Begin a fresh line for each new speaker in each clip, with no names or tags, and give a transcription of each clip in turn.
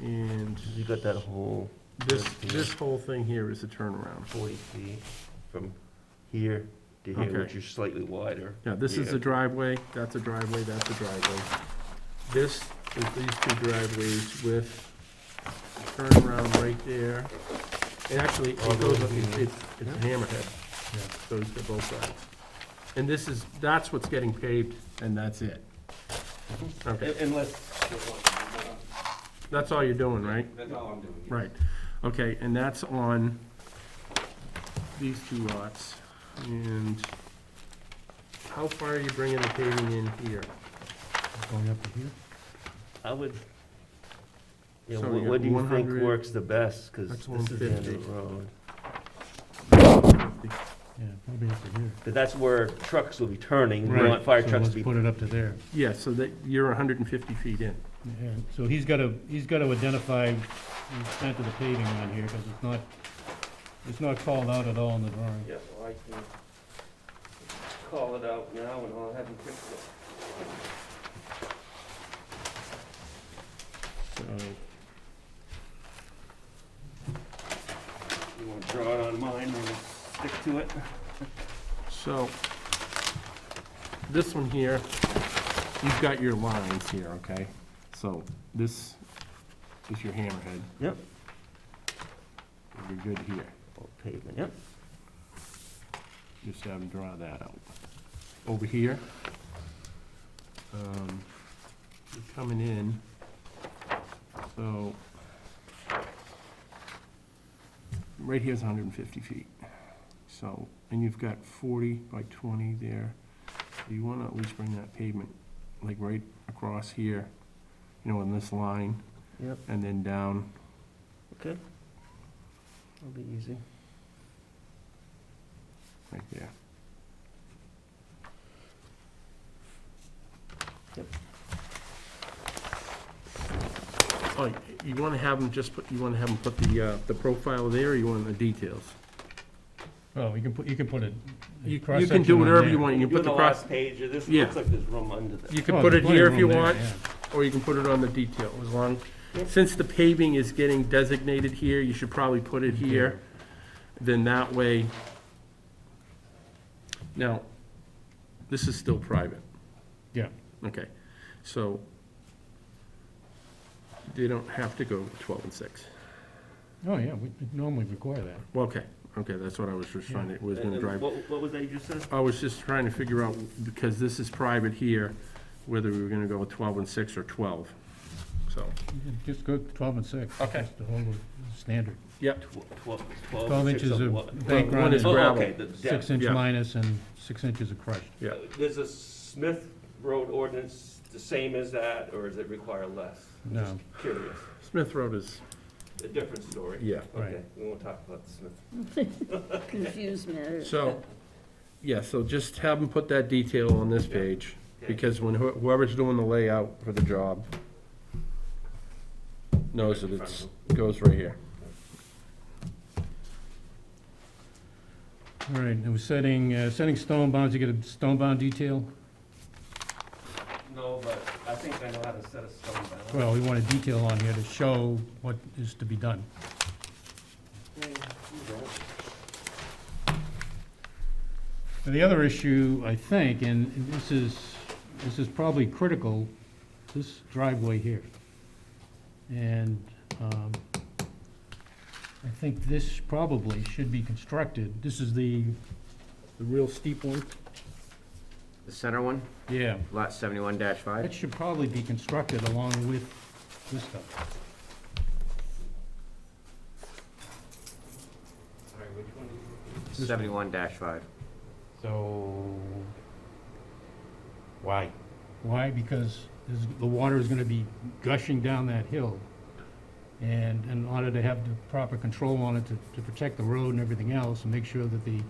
And
You got that whole
this,
Yeah.
this whole thing here is the turnaround.
forty feet from here to here,
Okay.
which is slightly wider.
Yeah, this is the
Yeah.
driveway, that's a driveway, that's a driveway. This is these two driveways with turnaround right there. And actually,
All
it goes
those
up, it's,
units.
it's it's a hammerhead, goes to both sides. And this is, that's what's getting paved, and that's it. Okay,
Un- Unless,
that's all you're doing, right?
that's all I'm doing.
Right, okay, and that's on these two lots, and how far are you bringing the paving in here?
Going up to here?
I would, yeah,
So
what
you
what
got
do you think
100
works the best? Because
That's
this is the end of
150.
the road.
Yeah, probably up to here.
'Cause that's where trucks will be turning, we
Right.
want fire
So
trucks to
Let's
be.
put it up to there.
Yeah, so that, you're hundred and fifty feet in.
Yeah, So he's gotta, he's gotta identify the extent of the paving on here, because it's not, it's not called out at all in the drawing.
Yeah, well, I can call it out now and I'll have him fix it.
So,
You want to draw it on mine and stick to it?
so, this one here, you've got your lines here, okay? So, this is your hammerhead.
Yep.
You're good here.
All pavement, yep.
Just have them draw that out. Over here, um, you're coming in, so, right here's hundred and fifty feet, so, and you've got forty by twenty there. So You wanna at least bring that pavement, like, right across here, you know, in this line,
Yep,
and then down,
it'll be easy.
right there.
Yep.
Oh, you wanna have them just put, you wanna have them put the, uh, the profile there, or you want the details?
Well, you can put, you can put it.
You you can do whatever you want, you
You
can put
put
the
the
cross,
last page of this,
Yeah.
looks like there's room under there.
you
Oh,
can put it here if you want, or you can put it on the detail, as long,
Yep.
since the paving is getting designated here, you should probably put it here, then that way. Now, this is still private.
Yeah.
Okay, so they don't have to go twelve and six.
Oh, yeah, we normally require that.
Well, okay, okay, that's what I was just trying to, was
And-
gonna
and
drive.
What, what was that you just said?
I was just trying to figure out, because this is private here, whether we were gonna go with twelve and six or twelve, so.
You can Just go twelve and six.
Okay.
Just The whole standard.
Tw- Twelve, twelve.
Twelve
six
inches
what?
of bank
Well, one
run
is
and
Oh,
gravel.
okay, the
six
depth.
inch
yeah.
minus and six inches of crushed.
Yeah.
There's a Uh, Smith Road ordinance the same as that, or does it require less?
No.
Just Curious,
Smith Road is,
a different story.
yeah,
Right.
Okay, we won't talk about the Smith.
Confused me.
so, yeah, so just have them put that detail on this page, because when who- whoever's doing the layout for the job knows that it's, goes right here.
All right, and we're setting, uh, setting stone bounds, you get a stone bound detail?
No, but I think I know how to set a stone balance.
Well, we want a detail on here to show what is to be done. And the other issue, I think, and this is, this is probably critical, this driveway here. And um, I think this probably should be constructed, this is the, the real steep one?
The center one,
Yeah.
lot seventy-one dash
That
five?
should probably be constructed along with this stuff.
Sorry, which one?
Seventy-one dash five.
So, why?
Why? Because there's- the water is gonna be gushing down that hill. And in order to have the proper control on it to, to protect the road and everything else and make sure that the,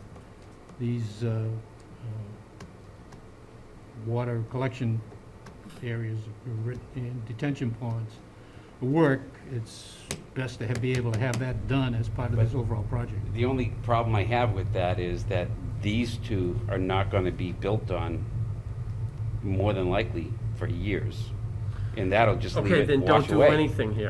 these, uh, uh, water collection areas are writ- and detention ponds work, it's best to have, be able to have that done as part of this overall project.
The only problem I have with that is that these two are not gonna be built on more than likely for years. And that'll just leave
Okay,
it
then don't
wash
do
away.
anything here.